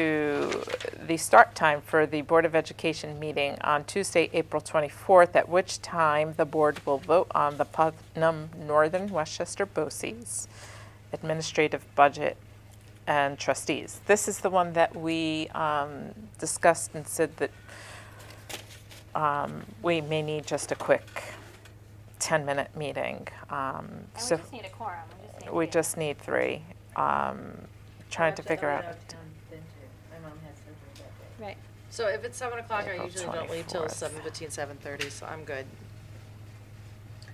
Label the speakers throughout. Speaker 1: to the start time for the Board of Education meeting on Tuesday, April 24th, at which time the board will vote on the Putnam Northern Westchester BOCES administrative budget and trustees. This is the one that we um, discussed and said that um, we may need just a quick 10-minute meeting. Um,
Speaker 2: And
Speaker 1: So
Speaker 2: we just need a quorum. We just need
Speaker 1: we
Speaker 2: three.
Speaker 1: just need three. Um, Trying to figure out.
Speaker 2: Right.
Speaker 3: So if it's seven o'clock, I
Speaker 1: April
Speaker 3: usually don't leave till
Speaker 1: 24th.
Speaker 3: seven fifteen, seven thirty, so I'm good.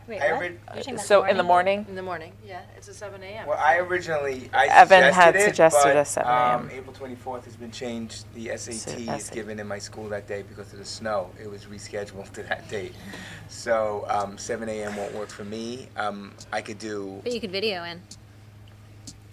Speaker 2: Wait,
Speaker 4: I
Speaker 2: what?
Speaker 4: read-
Speaker 2: You're saying that's
Speaker 1: So in the morning?
Speaker 3: In the morning, yeah, it's a seven AM.
Speaker 4: Well, I originally, I
Speaker 1: Evan
Speaker 4: suggested
Speaker 1: had
Speaker 4: it,
Speaker 1: suggested
Speaker 4: but,
Speaker 1: a 7 a.m..
Speaker 4: um, April 24th has been changed. The SAT is
Speaker 1: SAT.
Speaker 4: given in my school that day because of the snow. It was rescheduled to that date. So um, 7 a.m. won't work for me. Um, I could do,
Speaker 5: But you could video in,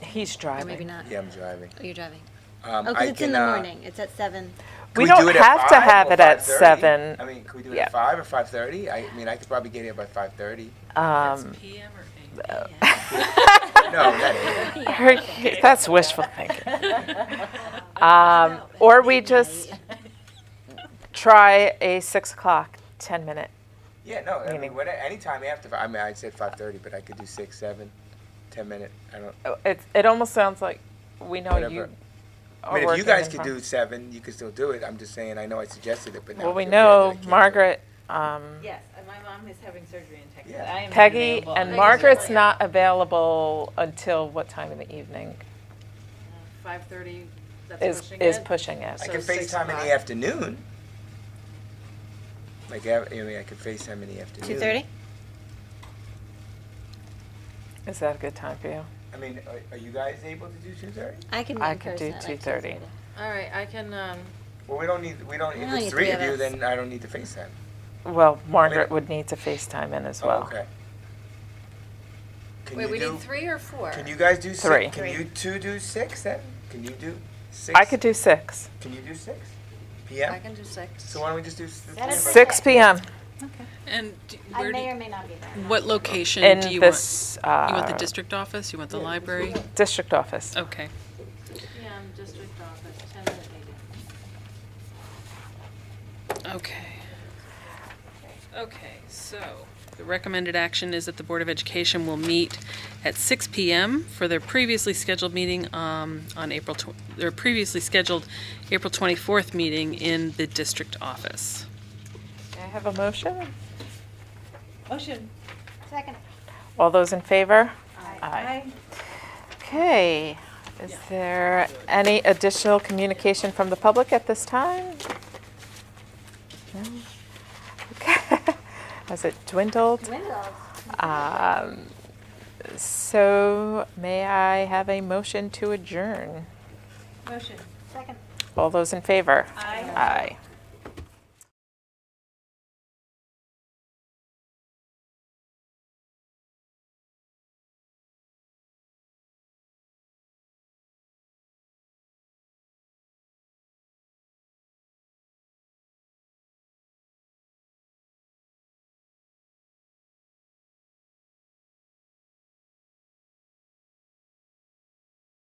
Speaker 1: He's
Speaker 5: or
Speaker 1: driving.
Speaker 5: maybe not.
Speaker 4: yeah, I'm driving.
Speaker 5: Oh, you're driving.
Speaker 4: Um,
Speaker 5: Oh,
Speaker 4: I
Speaker 5: because it's in the
Speaker 4: can, uh,
Speaker 5: morning. It's at seven.
Speaker 4: can
Speaker 1: We
Speaker 4: do
Speaker 1: don't
Speaker 4: it at
Speaker 1: have to
Speaker 4: five
Speaker 1: have
Speaker 4: or
Speaker 1: it at
Speaker 4: 5:30?
Speaker 1: seven.
Speaker 4: I mean, could we do it
Speaker 1: Yeah.
Speaker 4: at 5 or 5:30? I mean, I could probably get here by 5:30.
Speaker 1: Um,
Speaker 3: PM or
Speaker 4: No, that,
Speaker 1: her- that's wishful thinking. Um, or we just try a six o'clock, ten minute.
Speaker 4: yeah, no, I
Speaker 1: Meaning-
Speaker 4: mean, what, anytime after, fi- I mean, I said 5:30, but I could do 6, 7, 10 minute, I don't,
Speaker 1: Oh, It it almost sounds like we know you.
Speaker 4: Whatever.
Speaker 1: Are
Speaker 4: I mean, if
Speaker 1: working
Speaker 4: you guys
Speaker 1: in
Speaker 4: could
Speaker 1: front.
Speaker 4: do seven, you could still do it. I'm just saying, I know I suggested it, but now.
Speaker 1: Well, we
Speaker 4: you're
Speaker 1: know
Speaker 4: aware that I can't do it.
Speaker 1: Margaret, um,
Speaker 6: Yes, and my mom is having surgery in Texas.
Speaker 4: Yeah.
Speaker 6: I am not
Speaker 1: Peggy,
Speaker 6: available.
Speaker 1: and
Speaker 3: Peggy's
Speaker 1: Margaret's
Speaker 3: available.
Speaker 1: not available until what time in the evening
Speaker 3: Five thirty, that's
Speaker 1: is
Speaker 3: pushing
Speaker 1: is
Speaker 3: it.
Speaker 1: pushing it.
Speaker 4: I
Speaker 3: So
Speaker 4: can
Speaker 3: six
Speaker 4: FaceTime in
Speaker 3: o'clock.
Speaker 4: the afternoon. Like, I I mean, I could FaceTime in the afternoon.
Speaker 5: Two thirty.
Speaker 1: Is that a good time for you?
Speaker 4: I mean, are- are you guys able to do two thirty?
Speaker 5: I can.
Speaker 1: I
Speaker 5: in
Speaker 1: could do
Speaker 5: person at, like,
Speaker 1: 2:30.
Speaker 5: 2:30.
Speaker 3: All right, I can, um,
Speaker 4: Well, we don't need, we don't,
Speaker 5: We
Speaker 4: if
Speaker 5: only
Speaker 4: it's
Speaker 5: need
Speaker 4: three
Speaker 5: three
Speaker 4: of
Speaker 5: of
Speaker 4: you,
Speaker 5: us.
Speaker 4: then I don't need to FaceTime.
Speaker 1: Well, Margaret would need to FaceTime in as
Speaker 4: Oh,
Speaker 1: well.
Speaker 4: Okay. Can
Speaker 3: wait,
Speaker 4: you
Speaker 3: we
Speaker 4: do-
Speaker 3: need three or four?
Speaker 4: Can you guys do six?
Speaker 1: Three.
Speaker 4: Can you two do six then? Can you do six?
Speaker 1: I could do six.
Speaker 4: Can you do six?
Speaker 3: I
Speaker 4: PM?
Speaker 3: can do six.
Speaker 4: So why don't we just do? s- the
Speaker 2: That
Speaker 4: three
Speaker 2: is
Speaker 4: of us?
Speaker 1: Six PM
Speaker 7: And do-
Speaker 2: I
Speaker 7: where do,
Speaker 2: may or may not be there.
Speaker 7: what location
Speaker 1: in
Speaker 7: do you
Speaker 1: this,
Speaker 7: want? You want the
Speaker 1: uh,
Speaker 7: district office? You want the library?
Speaker 1: district office.
Speaker 7: Okay.
Speaker 3: PM, district office, ten minute meeting.
Speaker 7: Okay. Okay, so the recommended action is that the Board of Education will meet at 6 PM for their previously scheduled meeting um, on April, tw- their previously scheduled April 24th meeting in the district office.
Speaker 1: May I have a motion?
Speaker 6: Motion.
Speaker 2: Second.
Speaker 1: All those in favor?
Speaker 6: Aye.
Speaker 1: Okay. Is there any additional communication from the public at this time? No? Okay. Has it dwindled?
Speaker 2: Windows.
Speaker 1: Um, So may I have a motion to adjourn?
Speaker 6: Motion.
Speaker 2: Second.
Speaker 1: All those in favor?
Speaker 6: Aye.
Speaker 1: Aye.